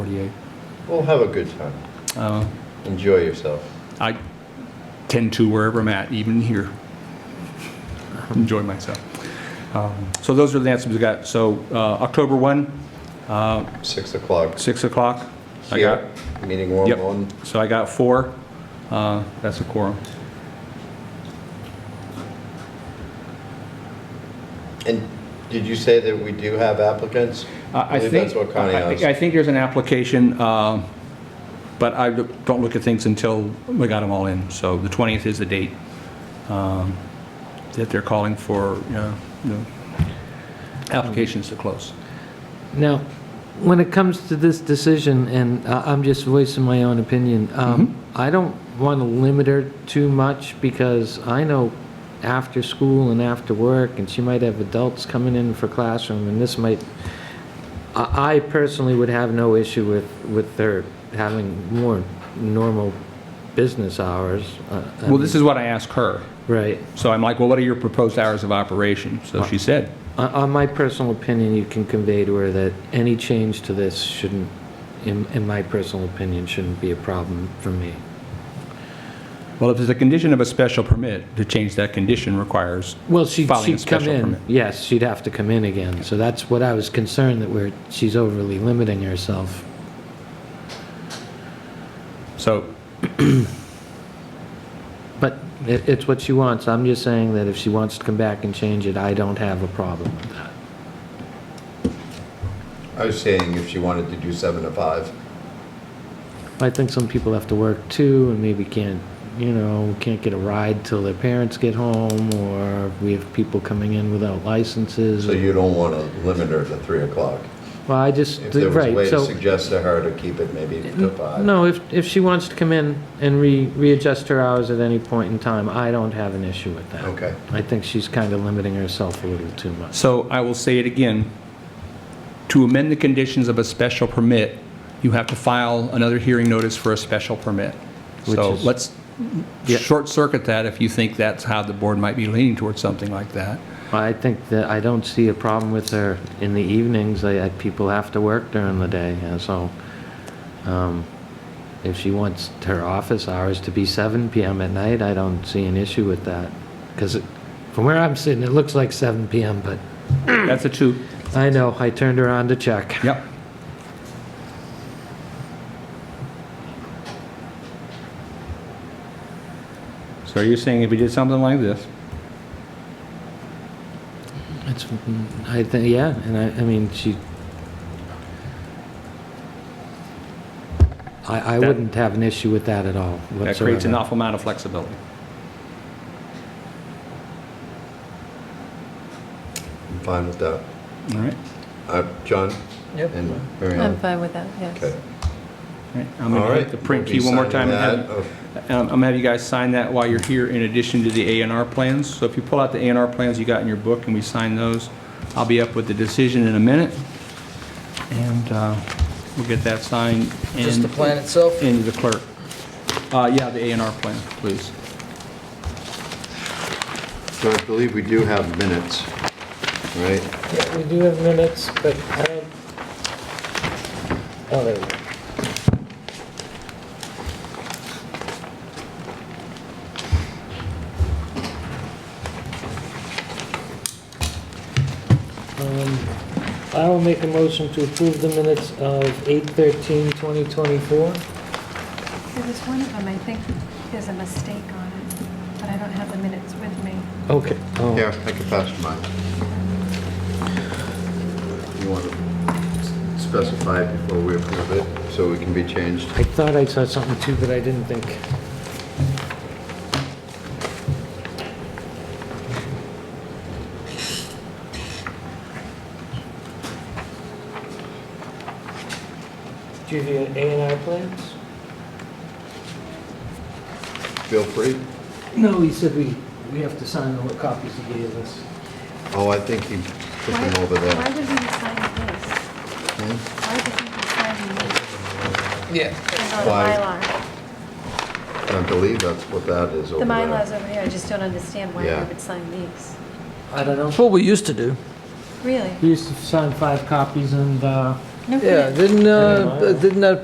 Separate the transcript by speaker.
Speaker 1: you.
Speaker 2: Well, have a good time.
Speaker 1: Uh,
Speaker 2: Enjoy yourself.
Speaker 1: I tend to wherever I'm at, even here. Enjoy myself. Um, So those are the answers we got. So uh, October 1, uh,
Speaker 2: Six o'clock
Speaker 1: 6 o'clock. I got-
Speaker 2: here, meeting one
Speaker 1: Yep.
Speaker 2: one.
Speaker 1: So I got four. Uh, That's a quorum.
Speaker 2: And did you say that we do have applicants?
Speaker 1: I I
Speaker 2: believe
Speaker 1: think.
Speaker 2: That's what Connie
Speaker 1: I- I-
Speaker 2: asked.
Speaker 1: I think there's an application, um, but I don't look at things until we got them all in. So the 20th is the date um, that they're calling for, uh, you know, the applications to close.
Speaker 3: Now, when it comes to this decision, and I- I'm just voicing my own opinion,
Speaker 1: Mm-hmm.
Speaker 3: um, I don't want to limit her too much because I know after school and after work, and she might have adults coming in for classroom, and this might, I I personally would have no issue with, with her having more normal business hours. Uh, I
Speaker 1: Well, this
Speaker 3: mean,
Speaker 1: is what I asked her.
Speaker 3: Right.
Speaker 1: So I'm like, well, what are your proposed hours of operation? So she said,
Speaker 3: On- Uh, On my personal opinion, you can convey to her that any change to this shouldn't, in, in my personal opinion, shouldn't be a problem for me.
Speaker 1: well, if there's a condition of a special permit, to change that condition requires
Speaker 3: Well, she'd,
Speaker 1: filing a
Speaker 3: she'd come
Speaker 1: special
Speaker 3: in,
Speaker 1: permit.
Speaker 3: yes, she'd have to come in again, so that's what I was concerned that we're, she's overly limiting herself.
Speaker 1: So,
Speaker 3: But it, it's what she wants, I'm just saying that if she wants to come back and change it, I don't have a problem with that.
Speaker 2: I was saying if she wanted to do seven to five.
Speaker 3: I think some people have to work too, and maybe can't, you know, can't get a ride till their parents get home, or we have people coming in without licenses.
Speaker 2: So you don't want to limit her to three o'clock.
Speaker 3: Well, I just,
Speaker 2: If there was a
Speaker 3: right,
Speaker 2: way to
Speaker 3: so,
Speaker 2: suggest to her to keep it maybe to five.
Speaker 3: no, if, if she wants to come in and re, readjust her hours at any point in time, I don't have an issue with that.
Speaker 2: Okay.
Speaker 3: I think she's kind of limiting herself a little too much.
Speaker 1: so I will say it again. To amend the conditions of a special permit, you have to file another hearing notice for a special permit.
Speaker 3: Which
Speaker 1: So
Speaker 3: is-
Speaker 1: let's
Speaker 3: Yeah.
Speaker 1: short-circuit that if you think that's how the board might be leaning towards something like that.
Speaker 3: I think that, I don't see a problem with her in the evenings, I, I, people have to work during the day, and so, um, if she wants her office hours to be seven PM at night, I don't see an issue with that. Because from where I'm sitting, it looks like seven PM, but
Speaker 1: That's a two.
Speaker 3: I know, I turned her on to check.
Speaker 1: Yep. So are you saying if we did something like this?
Speaker 3: It's, I think, yeah, and I, I mean, she, I, I
Speaker 1: That-
Speaker 3: wouldn't have an issue with that at all
Speaker 1: That creates an
Speaker 3: whatsoever.
Speaker 1: awful amount of flexibility.
Speaker 2: I'm fine with that.
Speaker 1: All right,
Speaker 2: Uh, John?
Speaker 1: Yep.
Speaker 2: And Mary
Speaker 4: I'm
Speaker 2: Ellen?
Speaker 4: fine with that, yes.
Speaker 2: Okay.
Speaker 1: all right. I'm
Speaker 2: All
Speaker 1: going to
Speaker 2: right.
Speaker 1: hit the print
Speaker 2: We'll
Speaker 1: key
Speaker 2: be
Speaker 1: one more time.
Speaker 2: signing
Speaker 1: and
Speaker 2: that.
Speaker 1: have- um, I'm going to have you guys sign that while you're here in addition to the A and R plans. So if you pull out the A and R plans you got in your book and we sign those, I'll be up with the decision in a minute. And uh, we'll get that signed.
Speaker 5: Just the
Speaker 1: and-
Speaker 5: plan itself?
Speaker 1: into the clerk. Uh, Yeah, the A and R plan, please.
Speaker 2: So I believe we do have minutes, right?
Speaker 5: Yeah, we do have minutes, but I don't... Oh, there we go. Um, I will make a motion to approve the minutes of 8/13/2024.
Speaker 4: There was one of them, I think there's a mistake on it, but I don't have the minutes with me.
Speaker 5: Okay. Oh.
Speaker 2: Here, I can pass you mine. You want to specify before we approve it, so it can be changed?
Speaker 5: I thought I saw something too, but I didn't think. Do you have the A and R plans?
Speaker 2: Feel free.
Speaker 5: No, he said we, we have to sign all the copies he gave us.
Speaker 2: Oh, I think he put
Speaker 4: Why-
Speaker 2: them over
Speaker 4: Why
Speaker 2: there.
Speaker 4: did we sign this? Why did we sign this?
Speaker 5: Yeah.
Speaker 4: There's not a
Speaker 2: Why?
Speaker 4: Mylar.
Speaker 2: I believe that's what that is
Speaker 4: The
Speaker 2: over there.
Speaker 4: Mylar's over here, I just don't understand why
Speaker 2: Yeah.
Speaker 4: we would sign these.
Speaker 5: I don't know. That's what we used to do.
Speaker 4: Really?
Speaker 5: We used to sign five copies and, uh,
Speaker 6: No,
Speaker 3: Yeah, didn't, uh, didn't that